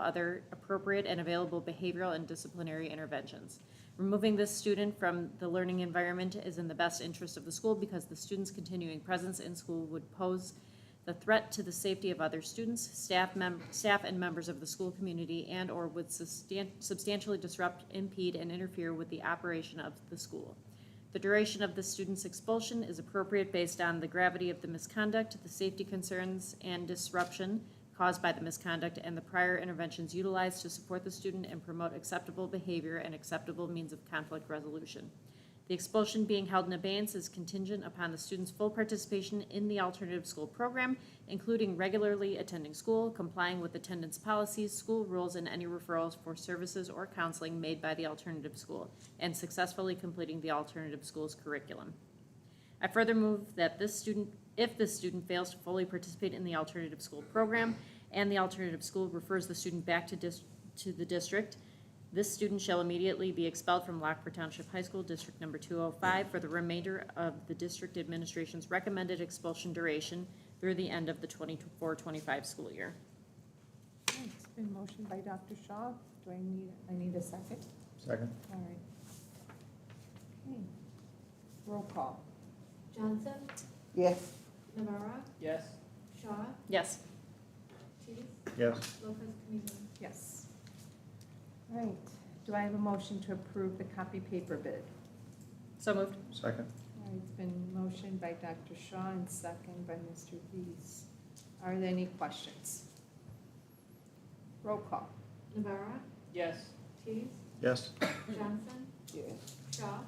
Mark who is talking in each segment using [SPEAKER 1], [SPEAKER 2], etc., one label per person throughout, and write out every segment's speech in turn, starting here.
[SPEAKER 1] other appropriate and available behavioral and disciplinary interventions. Removing this student from the learning environment is in the best interest of the school because the student's continuing presence in school would pose the threat to the safety of other students, staff mem, staff and members of the school community, and/or would sustan- substantially disrupt, impede, and interfere with the operation of the school. The duration of the student's expulsion is appropriate based on the gravity of the misconduct, the safety concerns and disruption caused by the misconduct, and the prior interventions utilized to support the student and promote acceptable behavior and acceptable means of conflict resolution. The expulsion being held in abeyance is contingent upon the student's full participation in the alternative school program, including regularly attending school, complying with attendance policies, school rules, and any referrals for services or counseling made by the alternative school, and successfully completing the alternative school's curriculum. I further move that this student, if this student fails to fully participate in the alternative school program and the alternative school refers the student back to dis, to the district, this student shall immediately be expelled from Lockport Township High School, District Number 205, for the remainder of the district administration's recommended expulsion duration through the end of the 24-25 school year.
[SPEAKER 2] It's been motioned by Dr. Shaw. Do I need, I need a second?
[SPEAKER 3] Second.
[SPEAKER 2] All right. Okay. Roll call.
[SPEAKER 4] Johnson,
[SPEAKER 5] Yes,
[SPEAKER 4] Navarro,
[SPEAKER 6] Yes,
[SPEAKER 4] Shaw,
[SPEAKER 1] Yes.
[SPEAKER 4] Tease,
[SPEAKER 3] Yes.
[SPEAKER 4] Lopez Caniva.
[SPEAKER 2] Yes. All right. Do I have a motion to approve the copy paper bid?
[SPEAKER 1] So moved.
[SPEAKER 3] Second.
[SPEAKER 2] All right, it's been motioned by Dr. Shaw and second by Mr. Rees. Are there any questions? Roll call.
[SPEAKER 4] Navarro,
[SPEAKER 6] yes,
[SPEAKER 4] Tease,
[SPEAKER 3] Yes.
[SPEAKER 4] Johnson,
[SPEAKER 5] yes,
[SPEAKER 4] Shaw,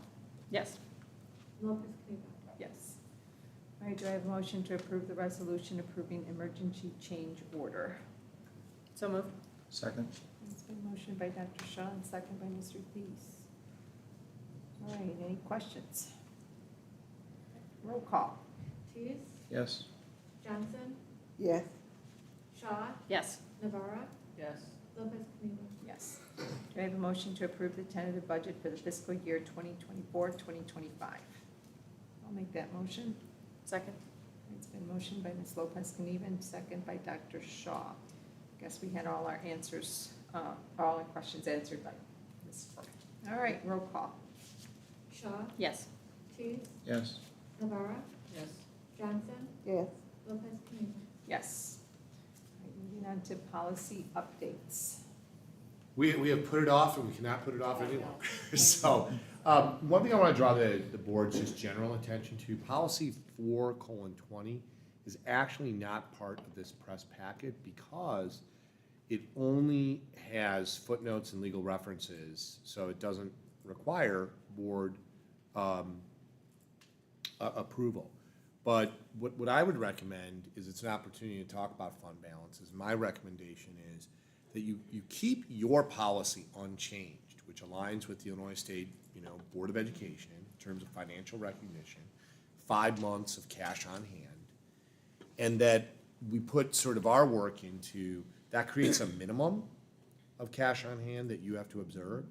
[SPEAKER 1] Yes.
[SPEAKER 4] Lopez Caniva.
[SPEAKER 2] Yes. All right, do I have a motion to approve the resolution approving emergency change order?
[SPEAKER 1] So moved.
[SPEAKER 3] Second.
[SPEAKER 2] It's been motioned by Dr. Shaw and second by Mr. Thies. All right, any questions? Roll call.
[SPEAKER 4] Tease,
[SPEAKER 3] Yes.
[SPEAKER 4] Johnson,
[SPEAKER 5] yes,
[SPEAKER 4] Shaw,
[SPEAKER 1] Yes.
[SPEAKER 4] Navarro,
[SPEAKER 6] yes,
[SPEAKER 4] Lopez Caniva.
[SPEAKER 2] Yes. Do I have a motion to approve the tentative budget for the fiscal year 2024, 2025? I'll make that motion.
[SPEAKER 1] Second.
[SPEAKER 2] It's been motioned by Ms. Lopez Caniva and second by Dr. Shaw. Guess we had all our answers, uh, all our questions answered by Ms. Ford. All right, roll call.
[SPEAKER 4] Shaw,
[SPEAKER 1] Yes.
[SPEAKER 4] Tease,
[SPEAKER 3] Yes.
[SPEAKER 4] Navarro,
[SPEAKER 6] yes,
[SPEAKER 4] Johnson,
[SPEAKER 5] yes.
[SPEAKER 4] Lopez Caniva.
[SPEAKER 2] Yes. All right, Moving on to policy updates.
[SPEAKER 7] We, we have put it off and we cannot put it off any longer. So, um, one thing I wanna draw the, the board's just general attention to, policy four colon twenty is actually not part of this press packet because it only has footnotes and legal references, so it doesn't require board, um, a- approval. But what, what I would recommend is it's an opportunity to talk about fund balances. My recommendation is that you, you keep your policy unchanged, which aligns with the Illinois State, you know, Board of Education in terms of financial recognition, five months of cash on hand and that we put sort of our work into, that creates a minimum of cash on hand that you have to observe.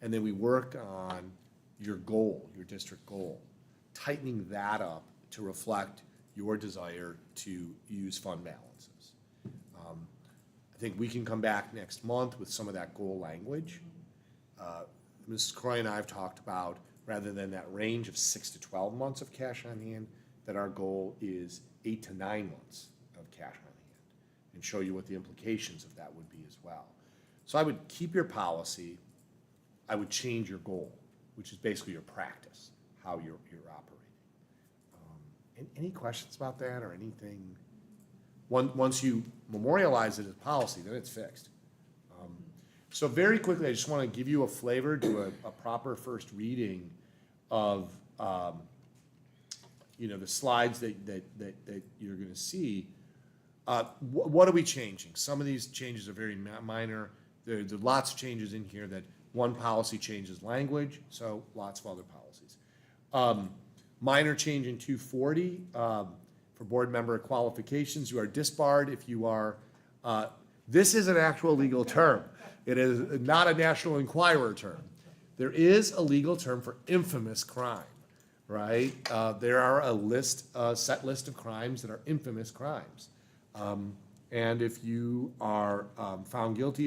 [SPEAKER 7] And then we work on your goal, your district goal, tightening that up to reflect your desire to use fund balances. Um, I think we can come back next month with some of that goal language. Uh, Mrs. Croy and I have talked about, rather than that range of six to twelve months of cash on hand, that our goal is eight to nine months of cash on hand, and show you what the implications of that would be as well. So I would keep your policy, I would change your goal, which is basically your practice, how you're, you're operating. Um, an- Any questions about that or anything? Once, once you memorialize it as policy, then it's fixed. Um, So very quickly, I just want to give you a flavor, do a, a proper first reading of, um, you know, the slides that, that, that, that you're going to see. Uh, wh- what are we changing? Some of these changes are very mi- minor. There, there are lots of changes in here that one policy changes language, so lots of other policies. Um, minor change in two forty, um, for board member qualifications, you are disbarred if you are, uh, this is an actual legal term. It is not a national inquirer term. There is a legal term for infamous crime, right? Uh, there are a list, a set list of crimes that are infamous crimes. Um, and if you are, um, found guilty